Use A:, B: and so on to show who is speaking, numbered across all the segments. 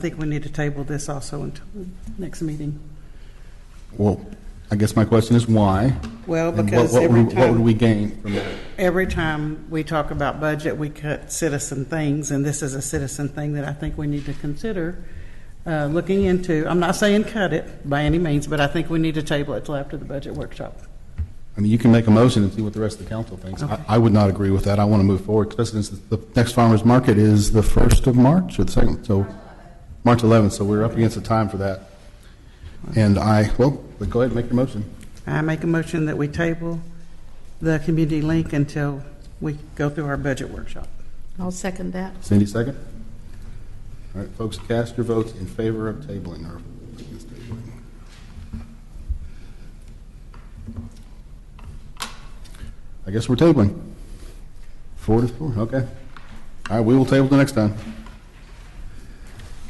A: I think we need to table this also until the next meeting.
B: Well, I guess my question is why?
A: Well,
B: And what-
A: because
B: what
A: every
B: would- What would
A: time,
B: we gain from that?
A: every time we talk about budget, we cut citizen things, and this is a citizen thing that I think we need to consider uh, looking into. I'm not saying cut it by any means, but I think we need to table it till after the budget workshop.
B: I mean, you can make a motion and see what the rest of the council thinks. I- I would not agree with that. I want to move forward, especially since the next farmer's market is the 1st of March or the 2nd, so, March 11th, so we're up against the time for that. And I, well, but go ahead, make your motion.
A: I make a motion that we table the community link until we go through our budget workshop.
C: I'll second that.
B: Cindy, second? All right, folks, cast your votes in favor of tabling or against tabling. I guess we're tabling. Four to four, okay. All right, we will table the next time.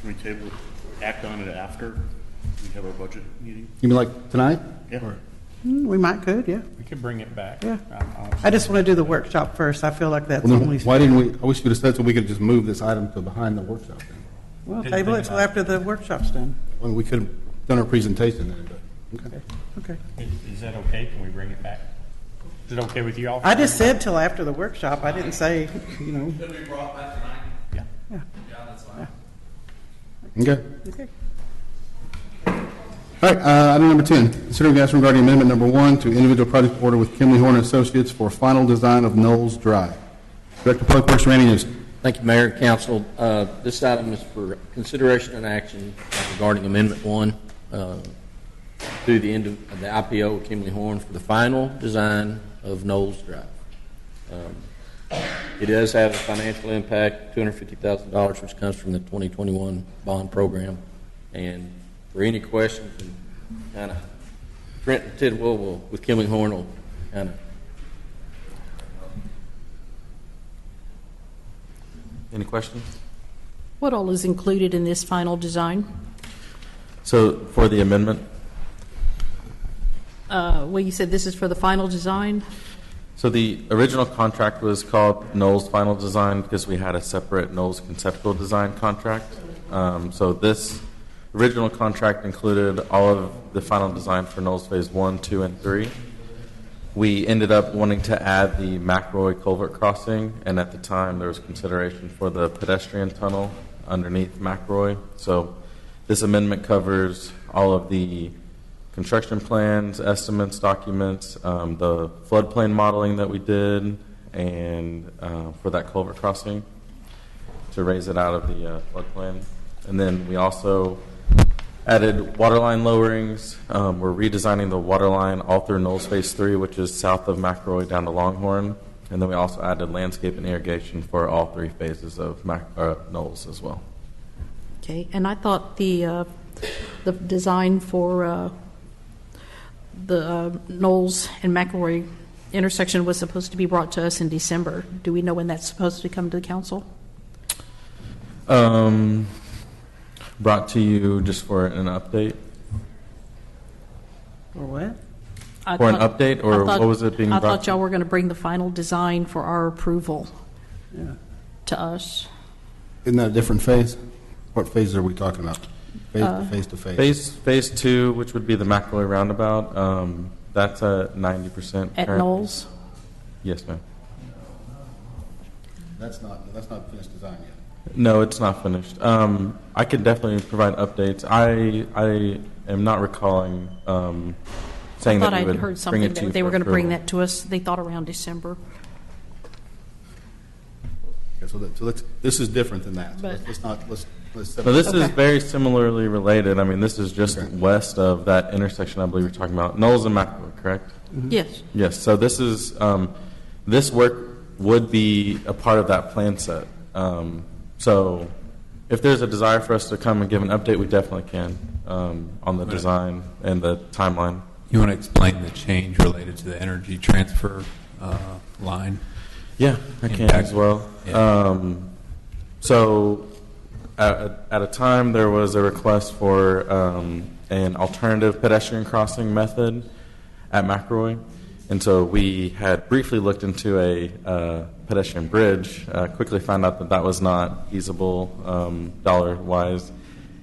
D: Can we table, act on it after we have our budget meeting?
B: You mean like tonight?
D: Yeah.
A: Hmm, We might could, yeah,
E: We could bring it back.
A: yeah.
E: Um,
A: I just want to do the workshop first. I feel like that's
B: Well,
A: only.
B: then, why didn't we, I wish you would have said so we could just move this item to behind the workshop then.
A: Well,
E: Didn't
A: table it
E: think
A: till
E: about
A: after the workshop's done.
B: Well, we could have done our presentation then, but, okay.
A: Okay.
E: Is is that okay? Can we bring it back? Is it okay with you all?
A: I just said till after the workshop. I didn't say, you know.
E: Yeah.
B: Okay.
A: Okay.
B: All right, uh, item number 10, considering action regarding amendment number one to individual project order with Kimley Horn Associates for final design of Knowles Drive. Director Public Works Randy Newsom.
F: Thank you, Mayor and Council. Uh, This item is for consideration and action regarding Amendment 1 uh, to the end of the IPO with Kimley Horn for the final design of Knowles Drive. Um, It does have a financial impact, $250,000, which comes from the 2021 bond program. And for any questions, kind of, Trent and Tidwell will, with Kimley Horn will kind of
G: Any questions?
C: What all is included in this final design?
G: So for the amendment,
C: Uh, Well, you said this is for the final design?
G: so the original contract was called Knowles Final Design because we had a separate Knowles Conceptual Design contract. Um, So this original contract included all of the final design for Knowles Phase 1, 2, and 3. We ended up wanting to add the McRoy Culvert Crossing, and at the time, there was consideration for the pedestrian tunnel underneath McRoy. So this amendment covers all of the construction plans, estimates, documents, um, the floodplain modeling that we did, and uh, for that culvert crossing to raise it out of the uh, floodplain. And then we also added waterline lowerings. Um, We're redesigning the waterline all through Knowles Phase 3, which is south of McRoy down to Longhorn. And then we also added landscape and irrigation for all three phases of Mac- uh, Knowles as well.
C: Okay, and I thought the, uh, the design for uh, the uh, Knowles and McElroy intersection was supposed to be brought to us in December. Do we know when that's supposed to come to the council?
G: Um, Brought to you just for an update,
A: Or what?
C: I
G: For an
C: thought-
G: update, or
C: I thought-
G: what was it being
C: I
G: brought
C: thought
G: to-
C: y'all were going to bring the final design for our approval
A: Yeah.
C: to us.
B: Isn't that a different phase? What phase are we talking about? Phase to phase to phase?
G: Phase, phase two, which would be the McElroy Roundabout, um, that's a 90%.
C: At
G: current-
C: Knowles?
G: Yes, ma'am.
B: That's not, that's not finished design yet.
G: No, it's not finished. Um, I can definitely provide updates. I, I am not recalling um,
C: I
G: saying
C: thought
G: that we
C: I'd
G: would
C: heard
G: bring
C: something
G: it to you
C: that they
G: for
C: were going to bring
G: approval.
C: that to us, they thought around December.
B: Okay, so that, so let's, this is different than that. So
C: But-
B: let's- Let's not, let's, let's.
G: So this is
C: Okay.
G: very similarly related. I mean, this is just
B: Okay.
G: west of that intersection I believe you're talking about, Knowles and McElroy, correct?
C: Yes.
G: Yes, so this is, um, this work would be a part of that plan set. Um, So if there's a desire for us to come and give an update, we definitely can um, on the design and the timeline.
H: You want to explain the change related to the energy transfer uh, line?
G: Yeah, I can
H: Impact.
G: as well.
H: Yeah.
G: Um, so, at, at a time, there was a request for um, an alternative pedestrian crossing method at McRoy. And so we had briefly looked into a uh, pedestrian bridge, uh, quickly found out that that was not feasible um, dollar wise.